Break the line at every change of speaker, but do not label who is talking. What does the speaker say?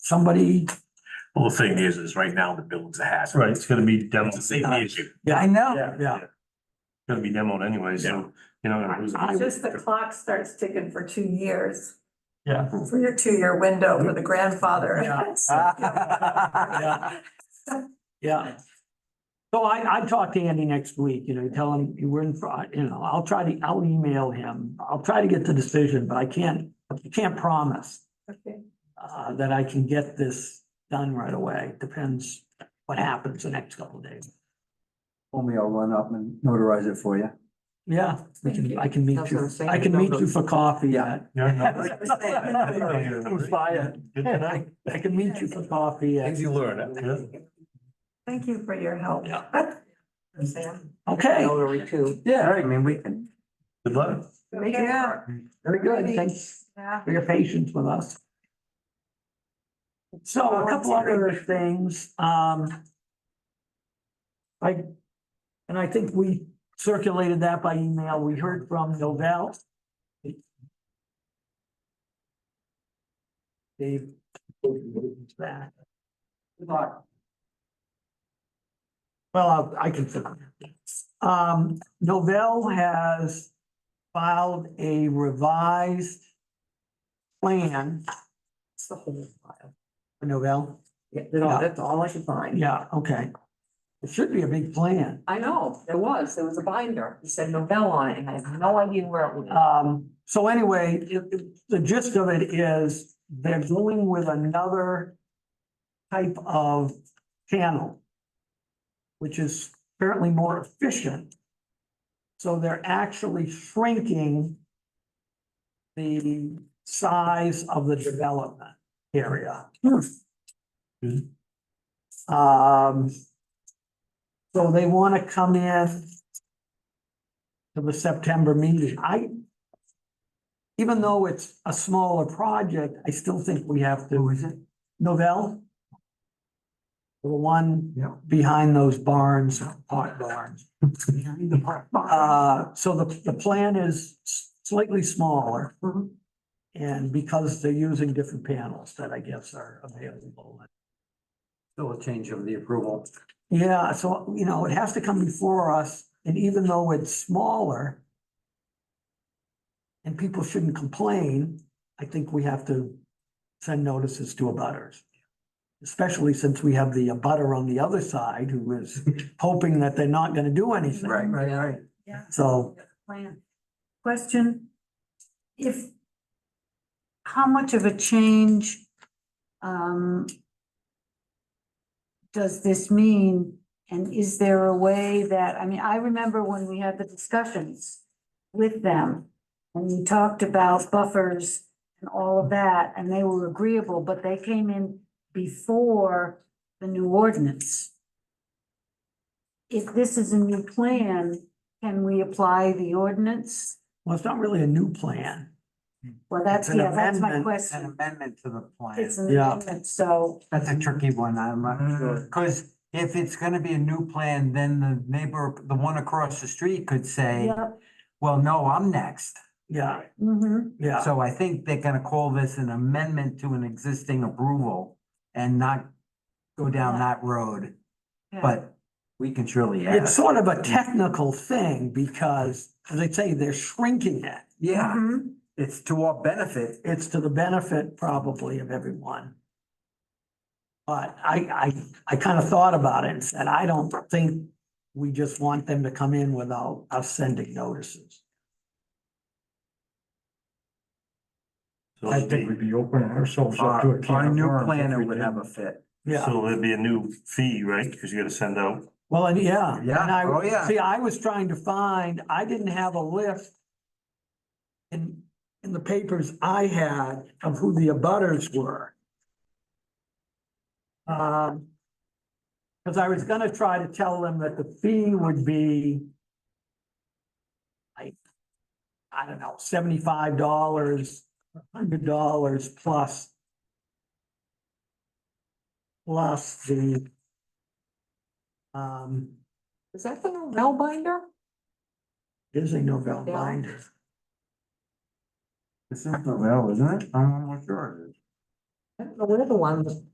somebody,
Well, the thing is, is right now the building's a hazard.
Right, it's gonna be demoed.
It's a safety issue.
yeah, I know,
Yeah.
yeah.
Gonna be demoed anyway, so you're not gonna lose
I-
it.
I-
Just the clock starts ticking for two years,
Yeah.
for your two-year window for the grandfather.
Yeah.
So-
Yeah. So I, I talk to Andy next week, you know, tell him we're in, fr- you know, I'll try to, I'll email him. I'll try to get the decision, but I can't, I can't promise
Okay.
uh, that I can get this done right away. Depends what happens the next couple of days.
Only I'll run up and notarize it for you.
Yeah, we
Thank
can,
you.
I can meet
That's what
you.
I'm saying.
I can meet you for coffee
Yeah.
at.
Yeah, no.
It was fire.
Good to know.
I I can meet you for coffee at,
you learn.
Yeah.
Thank you for your help. Sam.
okay.
Hillary too.
Yeah, I mean, we can.
Good luck.
Make it
Yeah.
work.
Very good. Thanks
Yeah.
for your patience with us. So a couple other things, um. I, and I think we circulated that by email. We heard from Novell. Dave. Back. Well, I I can. figure it out. Um, Novell has filed a revised plan,
That's the whole file.
Novell.
Yeah, that all- that's all I could find.
Yeah, okay. It should be a big plan.
I know, there was, there was a binder. It said Novell on it and I have no idea where it was.
Um, so anyway, it- it- the gist of it is they're going with another type of channel, which is apparently more efficient. So they're actually shrinking the size of the development area. Um, so they want to come in to the September meeting. I, even though it's a smaller project, I still think we have to. Who is it? Novell? The one
Yeah.
behind those barns, pot barns. Uh, so the, the plan is slightly smaller.
Mhm.
And because they're using different panels that I guess are available.
Still a change of the approval.
Yeah, so, you know, it has to come before us, and even though it's smaller. And people shouldn't complain, I think we have to send notices to abutters. Especially since we have the abutter on the other side who is hoping that they're not gonna do anything.
right, right.
Yeah.
So,
Plan. Question, if, how much of a change, um, does this mean? And is there a way that, I mean, I remember when we had the discussions with them and we talked about buffers and all of that, and they were agreeable, but they came in before the new ordinance. If this is a new plan, can we apply the ordinance?
well, it's not really a new plan.
Well, that's,
It's an
yeah, that's my
amendment,
An
question.
amendment to the plan.
It's an
Yeah.
amendment, so,
That's a tricky one, I'm not sure. Because if it's gonna be a new plan, then the neighbor, the one across the street could say,
yeah,
well, no, I'm next.
Yeah,
hmm
yeah,
So I think they're gonna call this an amendment to an existing approval and not go down that road, but we can surely
it's
ask.
sort of a technical thing because, as I say, they're shrinking it.
Yeah,
Mm-hmm.
it's to our benefit.
it's to the benefit probably of everyone. But I, I, I kind of thought about it and said, I don't think we just want them to come in without us sending notices.
So it'd be-
be opening ourselves
Our, our new
plan
planner would have a fit.
Yeah,
So there'd be a new fee, right? Because you gotta send out.
well, and yeah. and
Yeah,
I-
oh, yeah.
See, I was trying to find, I didn't have a list in, in the papers I had of who the abutters were. Um, cause I was gonna try to tell them that the fee would be like, I don't know, seventy-five dollars, hundred dollars plus plus the um,
Is that the Novell binder?
is a Novell
Yeah.
binder.
This is the well, isn't it? I'm not sure.
I don't know where the one